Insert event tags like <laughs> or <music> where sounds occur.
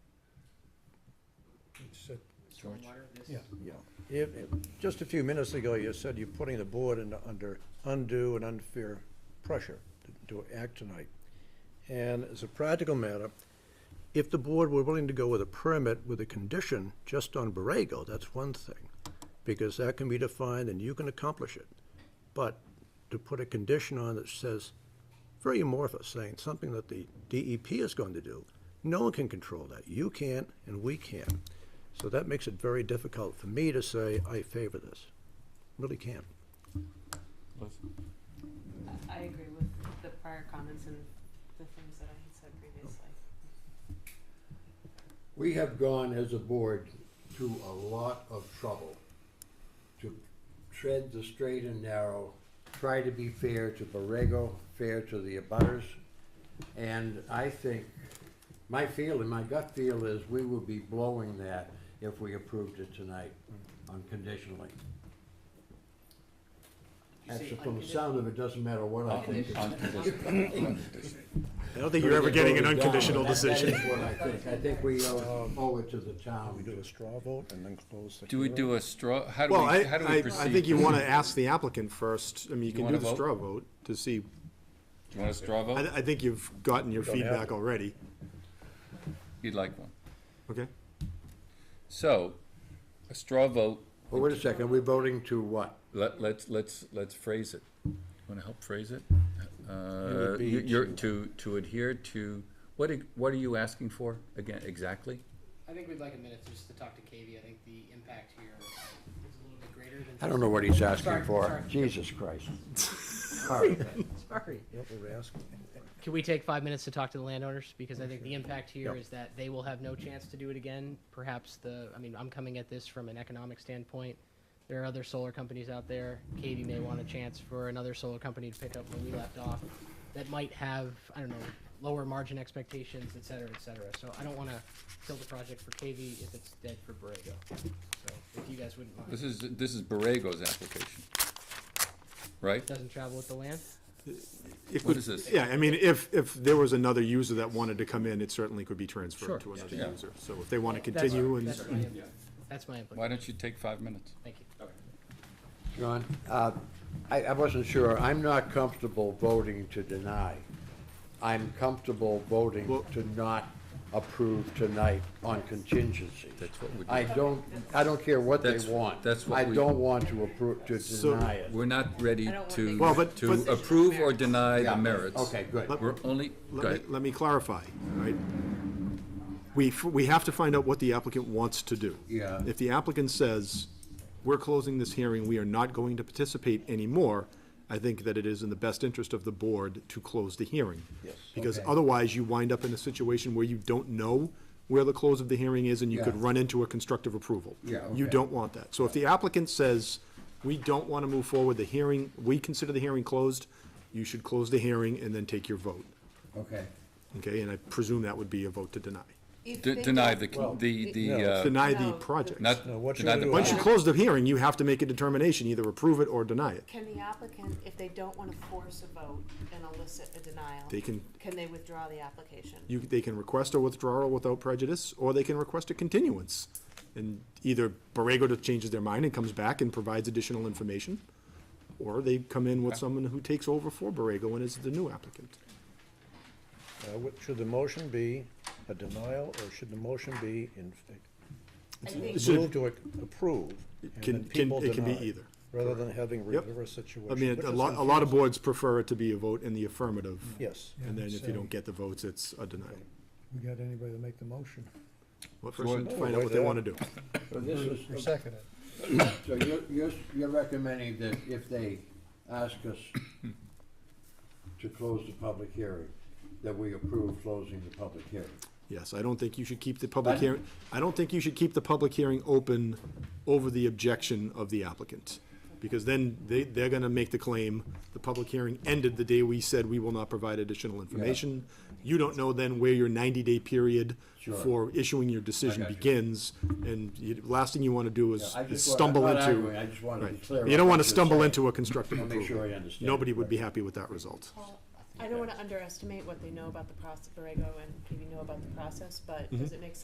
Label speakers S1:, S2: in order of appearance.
S1: George?
S2: Yeah.
S3: Yeah.
S2: If, if- just a few minutes ago, you said you're putting the board in, under undue and unfair pressure to- to act tonight. And as a practical matter, if the board were willing to go with a permit with a condition just on Borrego, that's one thing, because that can be defined and you can accomplish it. But to put a condition on that says, very amorphous, saying something that the DEP is going to do, no one can control that. You can't, and we can't. So that makes it very difficult for me to say, I favor this. Really can't.
S4: I agree with the prior comments and the things that I had said previously.
S3: We have gone as a board to a lot of trouble to tread the straight and narrow, try to be fair to Borrego, fair to the abutters. And I think, my feeling, my gut feel is we will be blowing that if we approved it tonight unconditionally. Actually, from the sound of it, doesn't matter what I think.
S2: I don't think
S3: We're gonna vote it down, but that- that is what I think. I think we owe owe it to the town.
S2: We do a straw vote and then close the.
S5: Do we do a straw, how do
S6: Well, I,
S5: we, how do
S6: I,
S5: we
S6: I
S5: proceed?
S6: think you wanna ask the applicant first, I mean, you
S5: You
S6: can
S5: wanna
S6: do the
S5: vote? Oh.
S6: straw vote to see,
S5: Do you want a straw
S6: I,
S5: vote?
S6: I think you've gotten your
S2: Don't have
S6: feedback
S2: it.
S6: already,
S5: You'd like one.
S6: okay?
S5: So, a straw vote,
S3: Well, wait a second, we're voting to what?
S5: let, let's, let's, let's phrase it. You wanna help phrase it? Uh,
S2: would be
S5: you- you're, to, to adhere to, what, e- what are you asking for again, exactly?
S7: I think we'd like a minute just to talk to Katie. I think the impact here is a little bit greater than.
S3: I don't know what he's asking
S7: Sorry,
S3: for.
S7: sorry.
S3: Jesus
S7: <laughs>
S3: Christ. Sorry.
S7: Sorry.
S2: Yep, we were asking.
S7: Can we take five minutes to talk to the landowners? Because I think the impact here
S2: Yeah.
S7: is that they will have no chance to do it again. Perhaps the, I mean, I'm coming at this from an economic standpoint. There are other solar companies out there. Katie may want a chance for another solar company to pick up where we left off that might have, I don't know, lower margin expectations, et cetera, et cetera. So I don't want to kill the project for Katie if it's dead for Borrego. So if you guys wouldn't mind.
S5: This is, this is Borrego's application, right?
S7: Doesn't travel with the land?
S6: It
S5: What
S6: could-
S5: is this?
S6: Yeah, I mean, if, if there was another user that wanted to come in, it certainly could be
S7: Sure.
S6: transferred to another
S5: Yeah.
S6: user, so if they wanna
S7: That's-
S6: continue and.
S7: That's my, input. that's my
S5: Why
S7: input.
S5: don't you take five minutes?
S7: Thank you.
S3: John, uh, I, I wasn't sure. I'm not comfortable voting to deny. I'm comfortable voting to not approve tonight on contingency.
S5: That's what we do.
S3: I don't, I don't care what they
S5: That's-
S3: want.
S5: that's what
S3: I
S5: we-
S3: don't want to approve, to
S6: So-
S3: deny it.
S5: We're not ready
S4: I don't want
S5: to,
S4: big
S6: Well, but-
S5: to
S6: but-
S5: approve or deny the
S3: Yeah,
S5: merits.
S3: Okay, good.
S5: We're only, go
S6: Let
S5: ahead.
S6: me, let me clarify, all right? We, f- we have to find out what the applicant wants to do.
S3: Yeah.
S6: If the applicant says, we're closing this hearing, we are not going to participate anymore, I think that it is in the best interest of the board to close the hearing. Yes. Because
S3: Okay.
S6: otherwise, you wind up in a situation where you don't know where the close of the hearing is, and you could
S3: Yeah.
S6: run into a constructive approval.
S3: Yeah,
S6: You
S3: okay.
S6: don't want that. So if the applicant says, we don't want to move forward, the hearing, we consider the hearing closed, you should close the hearing and then take your vote.
S3: Okay.
S6: Okay, and I presume that would be a vote to deny.
S4: If
S5: De-
S4: they
S5: Deny
S4: don't-
S5: the, con- the, the,
S2: No.
S5: uh,
S6: Deny the
S4: No.
S6: project.
S5: not,
S2: No, what you
S5: deny
S2: do
S5: the.
S2: is-
S6: Once you close the hearing, you have to make a determination, either approve it or deny it.
S4: Can the applicant, if they don't want to force a vote and elicit a denial,
S6: They can,
S4: can they withdraw the application?
S6: you, they can request a withdrawal without prejudice, or they can request a continuance. And either Borrego changes their mind and comes back and provides additional information, or they come in with someone who takes over for Borrego and is the new applicant.
S2: Uh, what- Should the motion be a denial, or should the motion be in,
S4: I think
S6: It's-
S2: move to approve? and
S6: can-
S2: then
S6: can-
S2: people
S6: it can be
S2: deny,
S6: either.
S2: Rather than having
S6: Yep.
S2: reverse
S6: I
S2: situation.
S6: mean,
S2: which
S6: a
S2: is
S6: lot, a lot of boards prefer it to be a vote in the affirmative.
S2: Yes.
S6: And then if you don't get the votes, it's a denial.
S8: We got anybody to make the motion
S6: Well,
S5: Well,
S6: first, find out what they wanna do.
S3: So this is,
S8: or second it?
S3: So you're, you're, you're recommending that if they ask us to close the public hearing, that we approve closing the public hearing?
S6: Yes, I don't think you should keep the public
S3: Pardon?
S6: hearing, I don't think you should keep the public hearing open over the objection of the applicant. Because then they, they're gonna make the claim, the public hearing ended the day we said we will not provide additional information. You don't know then where your ninety-day period
S3: Sure.
S6: for issuing your decision
S3: got you.
S6: begins, and you, last thing you wanna do
S3: Yeah,
S6: is
S3: I
S6: is
S3: just wa- I'm
S6: stumble
S3: not
S6: into.
S3: arguing, I just wanted to be
S6: Right.
S3: clear
S6: You
S3: on
S6: don't
S3: what
S6: wanna
S3: you're
S6: stumble
S3: saying.
S6: into a constructive
S3: Wanna make sure I
S6: approval.
S3: understand.
S6: Nobody would be happy with that result. Mm-hmm.
S4: I don't want to underestimate what they know about the process, Borrego and maybe know about the process, but does it make sense